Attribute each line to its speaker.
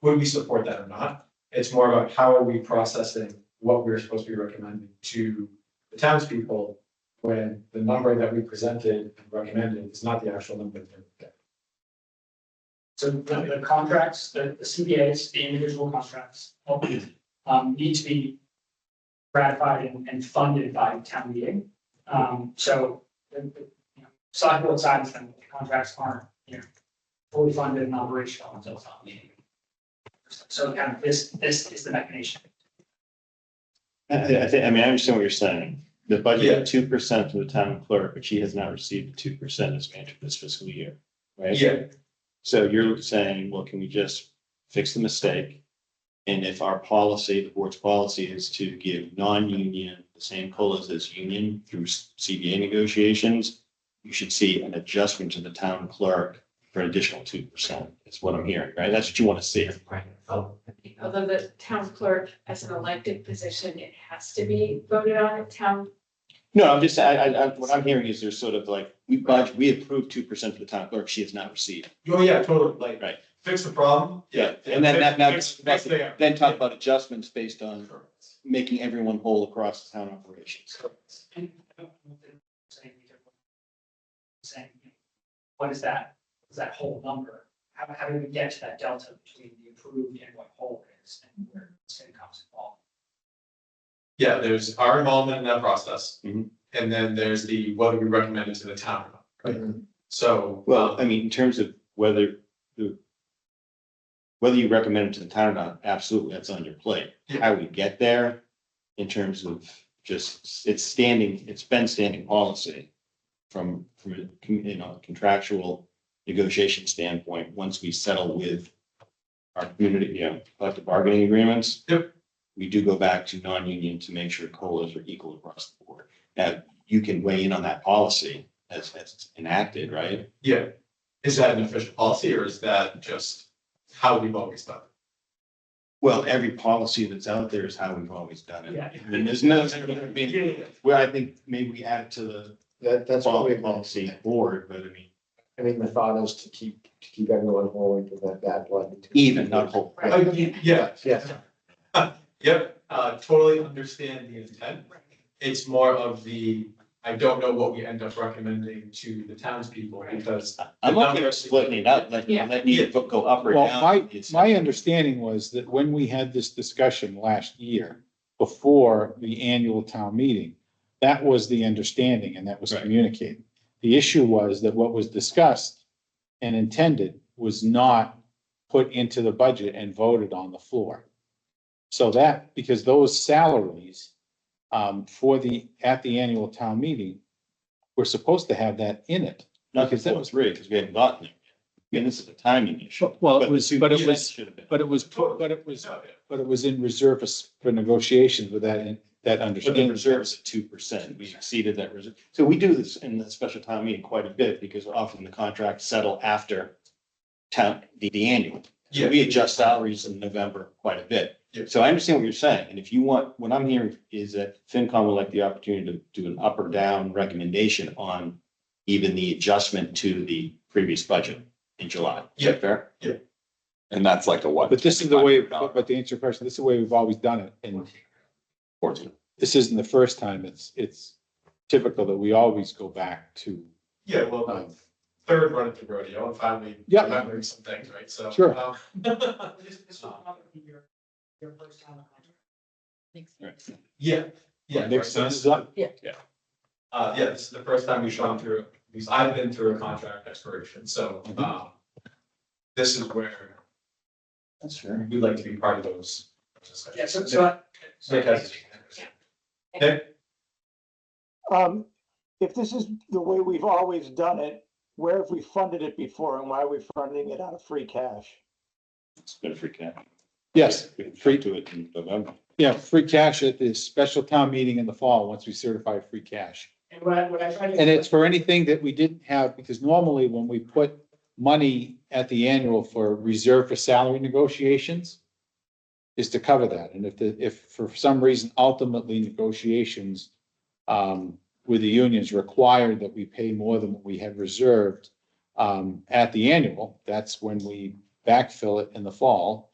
Speaker 1: would we support that or not? It's more about how are we processing what we're supposed to be recommending to the townspeople when the number that we presented and recommended is not the actual number. that they're-
Speaker 2: So the, the contracts, the, the CBAs, the individual contracts, um, need to be ratified and, and funded by town meeting. Um, so, the, the, you know, side board side, the contracts aren't, you know, fully funded and operational until town meeting. So kind of this, this is the mechanism.
Speaker 3: I, I think, I mean, I understand what you're saying. The budget of two percent for the town clerk, but she has not received the two percent as manager this fiscal year, right?
Speaker 1: Yeah,
Speaker 3: So you're saying, well, can we just fix the mistake? And if our policy, the board's policy is to give non-union the same colas as union through CBA negotiations, you should see an adjustment to the town clerk for an additional two percent, is what I'm hearing, right? That's what you want to see.
Speaker 4: Although the town clerk, as an elected position, it has to be voted on at town.
Speaker 3: No, I'm just, I, I, I- what I'm hearing is there's sort of like, we budget, we approved two percent for the town clerk, she has not received.
Speaker 1: oh yeah, totally, like.
Speaker 3: Right.
Speaker 1: Fix the problem.
Speaker 3: And then that, now,
Speaker 1: Fix- fix there.
Speaker 3: then talk about adjustments based on
Speaker 1: Correct.
Speaker 3: making everyone whole across the town operations.
Speaker 1: Correct.
Speaker 2: And I don't know if they're saying we could- Saying, you know, what is that, is that whole number? How, how do we get to that delta between the approved and what whole is and where it's gonna come involved?
Speaker 1: Yeah, there's our involvement in that process.
Speaker 3: Mhm.
Speaker 1: And then there's the whether we recommend it to the town. or not.
Speaker 3: Right.
Speaker 1: So. um,
Speaker 3: Well, I mean, in terms of whether the whether you recommend it to the town or not, absolutely, that's on your plate.
Speaker 1: Yeah.
Speaker 3: How we get there in terms of just, it's standing, it's been standing policy from, from, a con- you know, contractual negotiation standpoint, once we settle with our community, you know, collective bargaining agreements.
Speaker 1: Yep.
Speaker 3: We do go back to non-union to make sure COLAs are equal across the board. Now, you can weigh in on that policy as, as it's enacted, right?
Speaker 1: Yeah, is that an official policy or is that just how we've always done? it?
Speaker 3: Well, every policy that's out there is how we've always done it.
Speaker 2: Yeah.
Speaker 3: And there's no, I mean, well, I think maybe we add it to the
Speaker 5: That, that's what
Speaker 3: policy
Speaker 5: we,
Speaker 3: policy board, but I mean,
Speaker 5: I mean, the thought is to keep, to keep everyone whole and prevent bad blood.
Speaker 3: even, not whole.
Speaker 1: Uh, y- Yeah,
Speaker 5: Yes,
Speaker 1: yep, uh, totally understand the intent. It's more of the, I don't know what we end up recommending to the townspeople because.
Speaker 3: I'm okay with splitting it up, letting,
Speaker 4: Yeah.
Speaker 3: letting it go up or
Speaker 6: Well,
Speaker 3: down.
Speaker 6: my-
Speaker 3: It's-
Speaker 6: My understanding was that when we had this discussion last year, before the annual town meeting, that was the understanding and that was
Speaker 3: Right.
Speaker 6: communicated. The issue was that what was discussed and intended was not put into the budget and voted on the floor. So that, because those salaries um, for the, at the annual town meeting, were supposed to have that in it.
Speaker 3: Not because that was three, because we haven't gotten there. I mean, this is a timing issue.
Speaker 6: Well,
Speaker 3: the two percent should have been.
Speaker 6: but it was, put- but it was But it was in reserve for s- for negotiations with that, that
Speaker 3: But the
Speaker 6: understanding.
Speaker 3: reserves at two percent, we exceeded that reserve. So we do this in the special town meeting quite a bit because often the contracts settle after town, the, the annual. So
Speaker 1: Yeah.
Speaker 3: we adjust salaries in November quite a bit.
Speaker 1: Yeah.
Speaker 3: So I understand what you're saying. And if you want, what I'm hearing is that FinCom would like the opportunity to do an up or down recommendation on even the adjustment to the previous budget in July. Is that Fair?
Speaker 1: Yeah.
Speaker 3: And that's like a what?
Speaker 6: But this is the way, but but to answer your question, this is the way we've always done it. And this isn't the first time. It's, it's typical that we always go back to.
Speaker 1: Yeah, well,
Speaker 6: um,
Speaker 1: third run at the rodeo and finally
Speaker 6: Yeah.
Speaker 1: remembering some things, right? So.
Speaker 6: Sure.
Speaker 1: um,
Speaker 2: This, this will probably be your, your first time. on contract.
Speaker 1: Yeah, yeah.
Speaker 6: Next
Speaker 1: right.
Speaker 6: this is up.
Speaker 1: Uh, yeah, this is the first time we've gone through, at least I've been through a contract expiration, so, um, this is where
Speaker 3: That's fair.
Speaker 1: we'd like to be part of those. discussions.
Speaker 2: Yeah, so, so. I- so I-
Speaker 1: Because-
Speaker 7: Um, if this is the way we've always done it, where have we funded it before and why are we funding it out of free cash?
Speaker 3: It's been a free cap.
Speaker 6: Yes,
Speaker 3: We can free to it in November.
Speaker 6: yeah, free cash at the special town meeting in the fall, once we certify free cash.
Speaker 2: And what I, what I try to.
Speaker 6: And it's for anything that we didn't have, because normally when we put money at the annual for reserve for salary negotiations is to cover that. And if the, if for some reason ultimately negotiations um, with the unions required that we pay more than what we had reserved um, at the annual, that's when we backfill it in the fall